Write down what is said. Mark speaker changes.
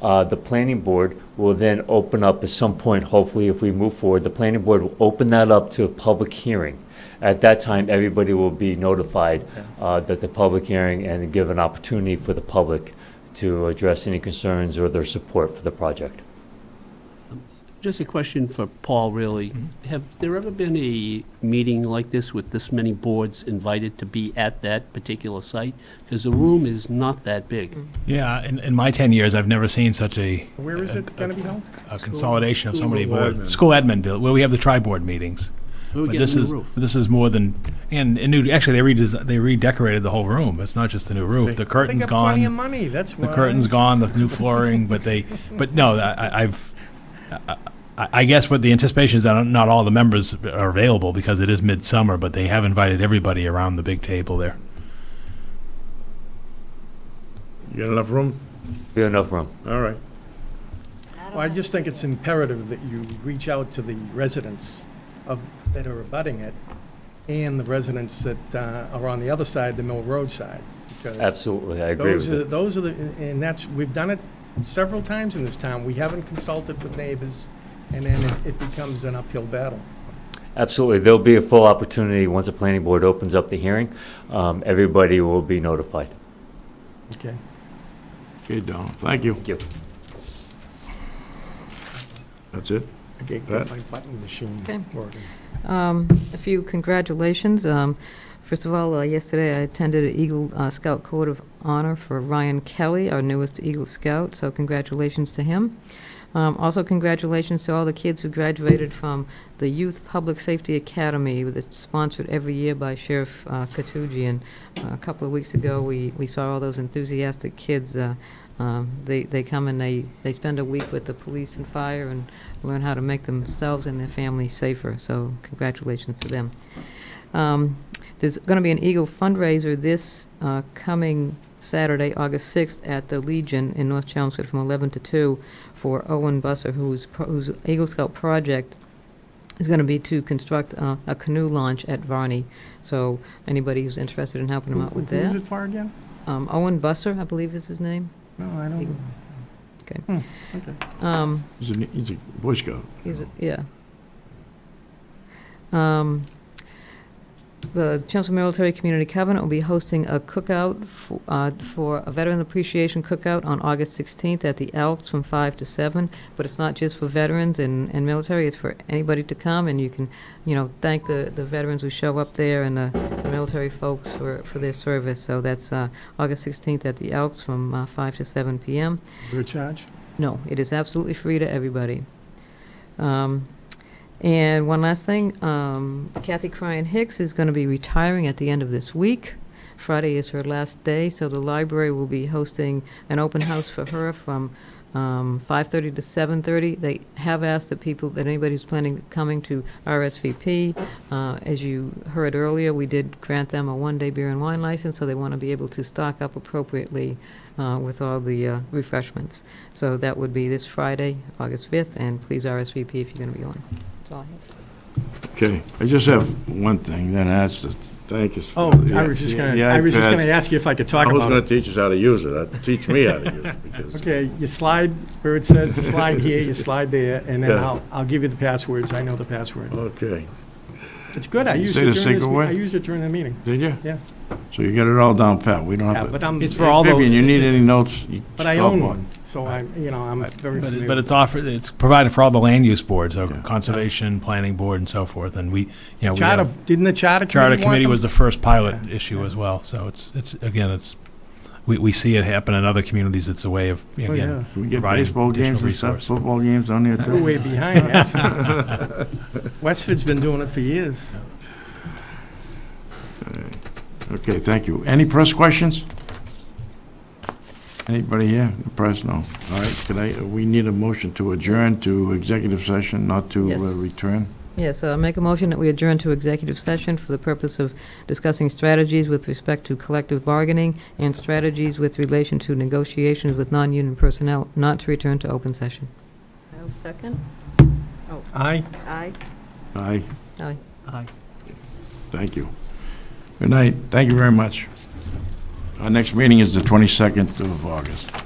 Speaker 1: Uh, The planning board will then open up at some point, hopefully if we move forward, the planning board will open that up to a public hearing. At that time, everybody will be notified uh, that the public hearing and give an opportunity for the public to address any concerns or their support for the project.
Speaker 2: Just a question for Paul, really. Have there ever been a meeting like this with this many boards invited to be at that particular site? Because the room is not that big.
Speaker 3: Yeah, in, in my 10 years, I've never seen such a,
Speaker 4: Where is it going to be held?
Speaker 3: a consolidation of so many
Speaker 4: School
Speaker 3: boards.
Speaker 4: admin.
Speaker 3: School admin bill, where we have the tri-board meetings.
Speaker 2: We were
Speaker 3: But
Speaker 2: getting
Speaker 3: this
Speaker 2: a new
Speaker 3: is,
Speaker 2: roof.
Speaker 3: this is more than, and, and new, actually, they redesi they redecorated the whole room. It's not just the new roof. The curtain's
Speaker 4: They got plenty of
Speaker 3: gone,
Speaker 4: money, that's why.
Speaker 3: the curtain's gone, the new flooring, but they, but no, I, I- I've, I, I I guess what the anticipation is that not all the members are available because it is midsummer, but they have invited everybody around the big table there.
Speaker 4: You got enough room?
Speaker 1: We have enough room.
Speaker 4: All right.
Speaker 5: don't
Speaker 4: Well, I just think it's imperative that you reach out to the residents of, that are abutting it and the residents that uh, are on the other side, the Mill Road side. because
Speaker 1: Absolutely, I agree with
Speaker 4: Those are,
Speaker 1: you.
Speaker 4: those are the, and that's, we've done it several times in this town. We haven't consulted with neighbors and then it- it becomes an uphill battle.
Speaker 1: Absolutely, there'll be a full opportunity, once the planning board opens up the hearing, um, everybody will be notified.
Speaker 4: Okay.
Speaker 6: Okay, Donald, thank you.
Speaker 1: Thank you.
Speaker 6: That's it?
Speaker 4: Okay,
Speaker 6: Pat?
Speaker 4: get my button machine
Speaker 5: Okay.
Speaker 4: working.
Speaker 5: Um, A few congratulations. Um, First of all, uh, yesterday I attended an Eagle uh, Scout Court of Honor for Ryan Kelly, our newest Eagle Scout, so congratulations to him. Um, Also, congratulations to all the kids who graduated from the Youth Public Safety Academy that's sponsored every year by Sheriff uh, Katugian. A couple of weeks ago, we we saw all those enthusiastic kids. uh, um, They they come and they they spend a week with the police and fire and learn how to make themselves and their families safer. So congratulations to them. Um, There's going to be an Eagle fundraiser this uh, coming Saturday, August 6th, at the Legion in North Chelmsford from 11 to 2 for Owen Busser, whose pro- whose Eagle Scout project is going to be to construct uh, a canoe launch at Varney. So anybody who's interested in helping him out with
Speaker 4: Who is
Speaker 5: that.
Speaker 4: it for again?
Speaker 5: Um, Owen Busser, I believe is his name.
Speaker 4: No, I don't.
Speaker 5: Okay.
Speaker 4: Hmm, Okay.
Speaker 5: Um,
Speaker 6: He's a, he's a Boy Scout.
Speaker 5: He's, a- yeah. Um, The Chelmsford Military Community Covenant will be hosting a cookout for, uh, for a Veteran Appreciation Cookout on August 16th at the Elks from 5 to 7. But it's not just for veterans and, and military, it's for anybody to come, and you can, you know, thank the, the veterans who show up there and the the military folks for, for their service. So that's uh, August 16th at the Elks from uh, 5 to 7 p.m.
Speaker 4: Your charge?
Speaker 5: No, it is absolutely free to everybody. Um, And one last thing, um, Kathy Cryan Hicks is going to be retiring at the end of this week. Friday is her last day, so the library will be hosting an open house for her from um, 5:30 to 7:30. They have asked that people, that anybody who's planning coming to RSVP, uh, as you heard earlier, we did grant them a one-day beer and wine license, so they want to be able to stock up appropriately uh, with all the uh, refreshments. So that would be this Friday, August 5th, and please RSVP if you're going to be going. That's all I have.
Speaker 6: Okay, I just have one thing, then that's to thank us. for
Speaker 4: Oh,
Speaker 6: the-
Speaker 4: I was just gonna,
Speaker 6: the
Speaker 4: I was just
Speaker 6: iPads.
Speaker 4: gonna ask you if I could talk
Speaker 6: I was
Speaker 4: about
Speaker 6: gonna
Speaker 4: it.
Speaker 6: teach us how to use it, Uh, teach me how to use it, because.
Speaker 4: Okay, you slide where it says slide here, you slide there, and then
Speaker 6: Yeah.
Speaker 4: I'll, I'll give you the passwords. I know the password.
Speaker 6: Okay,
Speaker 4: It's good. I
Speaker 6: You
Speaker 4: used
Speaker 6: say
Speaker 4: it
Speaker 6: the
Speaker 4: during this,
Speaker 6: secret
Speaker 4: me-
Speaker 6: word?
Speaker 4: I used it during the meeting.
Speaker 6: did you?
Speaker 4: Yeah.
Speaker 6: So you got it all down pat, we don't
Speaker 4: Yeah,
Speaker 6: have to.
Speaker 4: but I'm,
Speaker 3: It's for all the.
Speaker 6: Vivian, you need any notes? you
Speaker 4: but I
Speaker 6: stop
Speaker 4: own one, so I'm, you know, I'm very
Speaker 3: But,
Speaker 4: familiar.
Speaker 3: it- but it's offered, it's provided for all the land use boards, so
Speaker 6: Yeah.
Speaker 3: conservation, planning board, and so forth, and we, you know, we
Speaker 4: Charter,
Speaker 3: have-
Speaker 4: didn't the charter committee
Speaker 3: Charter
Speaker 4: want
Speaker 3: committee
Speaker 4: them?
Speaker 3: was the first pilot issue as well, so it's, it's, again, it's, we, we see it happen in other communities, it's a way of,
Speaker 4: Oh, yeah.
Speaker 3: again,
Speaker 6: Can we get
Speaker 3: Providing
Speaker 6: baseball
Speaker 3: additional
Speaker 6: games and stuff,
Speaker 3: resource.
Speaker 6: football games on there
Speaker 4: We're
Speaker 6: too?
Speaker 4: way behind, actually. Westford's been doing it for years.
Speaker 6: Okay, thank you. Any press questions? Anybody here? The Press, no. All right, can I, we need a motion to adjourn to executive session, not to uh,
Speaker 5: Yes.
Speaker 6: return?
Speaker 5: Yes, I make a motion that we adjourn to executive session for the purpose of discussing strategies with respect to collective bargaining and strategies with relation to negotiations with non-union personnel, not to return to open session.
Speaker 7: I'll second.
Speaker 4: Aye.
Speaker 7: Aye.
Speaker 6: Aye,
Speaker 5: Aye.
Speaker 2: Aye.
Speaker 6: thank you. Good night, thank you very much. Our next meeting is the 22nd of August.